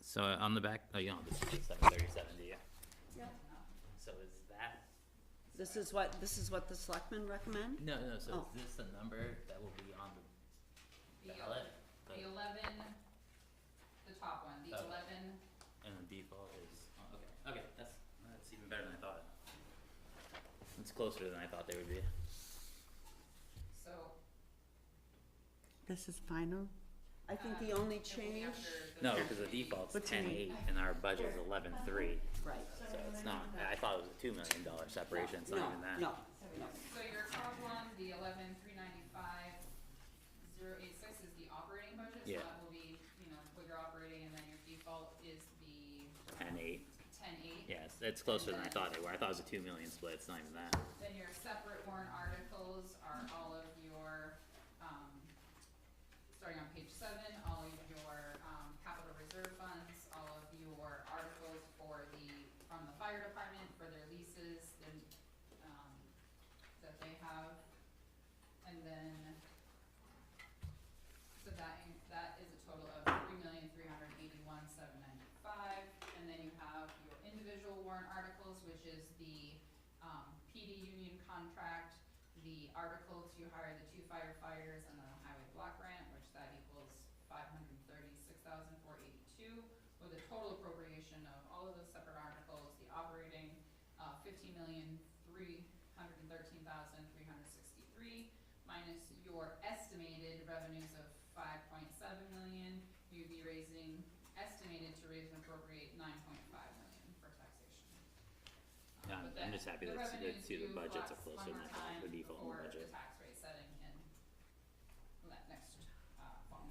So on the back, oh, you don't have this is seven thirty-seven, do you? So is that, This is what, this is what the selectmen recommend? no, no, so Oh. is this the number that will be on the The ballot? The eleven, the top one, the Okay. eleven, And the default is, oh, okay, okay, that's, that's even better than I thought. It's closer than I thought they would be. so This is final? I think the Um, it only will be change, after the No, town because the meeting. default's What's your ten eight and our budget's eleven three, right, so it's not, I thought it was a two million dollar separation, it's no, not even that. no, no. So your column, the eleven, three ninety-five, zero eight six is the operating budget, so Yeah. that will be, you know, what you're operating, and then your default is the Ten eight, ten eight. yes, it's closer than I thought they were, I thought it was a two million split, it's not even that. Then your separate warrant articles are all of your, um, starting on page seven, all of your, um, capital reserve funds, all of your articles for the, from the fire department for their leases and, um, that they have. And then, so that, in- that is a total of three million, three hundred eighty-one, seven ninety-five. And then you have your individual warrant articles, which is the, um, PD union contract, the article to hire the two firefighters, and then a highway block grant, which that equals five hundred thirty-six thousand four eighty-two, with a total appropriation of all of those separate articles, the operating, uh, fifteen million three hundred thirteen thousand three hundred sixty-three, minus your estimated revenues of five point seven million, you'd be raising, estimated to raise and appropriate nine point five million for taxation. Yeah, Um, I'm- but I'm that- just happy the that it's- revenues it's either do flex budgets are one closer more than I thought, the time default and before budget. the tax rate setting in that next, uh, fall.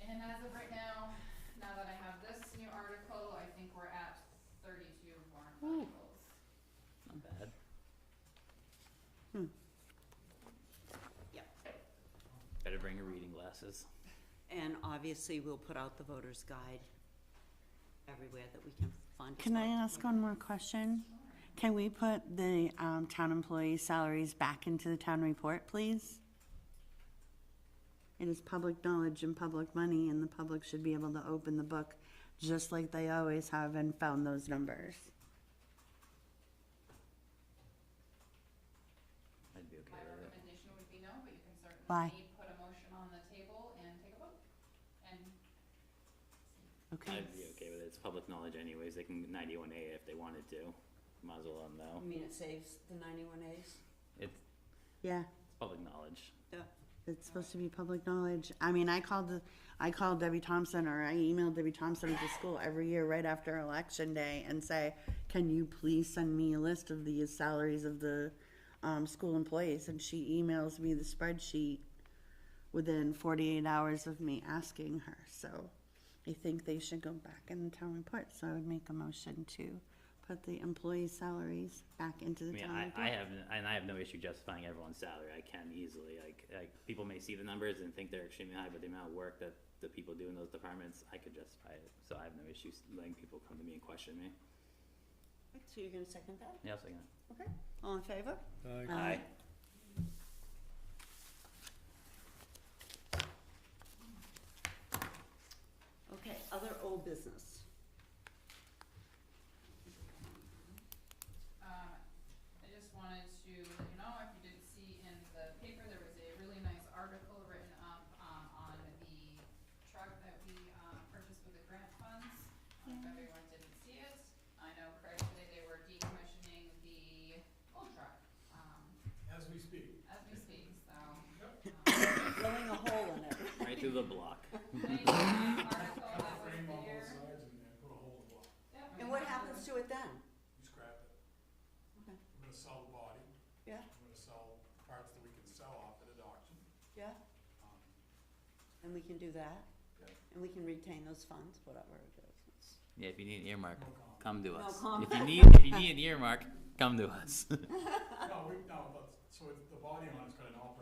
And as of right now, now that I have this new article, I think we're at thirty-two warrant Ooh. articles. Not bad. Hmm. Yep. Better bring your reading glasses. And obviously, we'll put out the voter's guide everywhere that we can find. as Can I well. ask one more question? Can we put the um, town employee salaries back into the town report, please? It is public knowledge and public money, and the public should be able to open the book just like they always have and found those numbers. I'd be okay My with it. recommendation would be no, but you can Why? certainly put a motion on the table and take a vote. And Okay. I'd be okay with it. It's public knowledge anyways. They can ninety-one A if they wanted to. Might as well let 'em I know. mean, it saves the ninety-one As. It's, Yeah, it's public knowledge. it's supposed to be public knowledge. I mean, I called the, I called Debbie Thompson or I emailed Debbie Thompson at the school every year right after election day and say, can you please send me a list of the salaries of the, um, school employees? And she emails me the spreadsheet within forty-eight hours of me asking her, so I think they should go back in the town report, so I would make a motion to put the employee salaries back into I the mean, town I, report. I have, and I have no issue justifying everyone's salary. I can easily, like, like, people may see the numbers and think they're extremely high, but the amount of work that the people do in those departments, I could justify it. So I have no issues letting people come to me and question me. So you're gonna second that? Yeah, I'll second it. Okay. All in favor? Aye. Aye. Okay, other old business. Um, I just wanted to let you know, if you didn't see in the paper, there was a really nice article written up, um, on the truck that we, um, purchased with the grant funds. Um, If everyone didn't see it, I know correctly, they were decommissioning the old truck, um, As we speak. as we speak, so. um, Blowing a hole in it. Right through the block. Nice article Cut that the was frame on both there. sides and then put a hole in the block. Yeah, I And mean, what that happens was- to it then? You scrap it. Okay. We're gonna sell the body. Yeah. We're gonna sell parts that we can sell off at an auction. Yeah, Um, and we can do that, yeah, and we can retain those funds, whatever it is. Yeah, if you need an earmark, no comment. come to No us. comment. If you need, if you need an earmark, come to us. No, we, no, but, so it's, the body on it's got an operating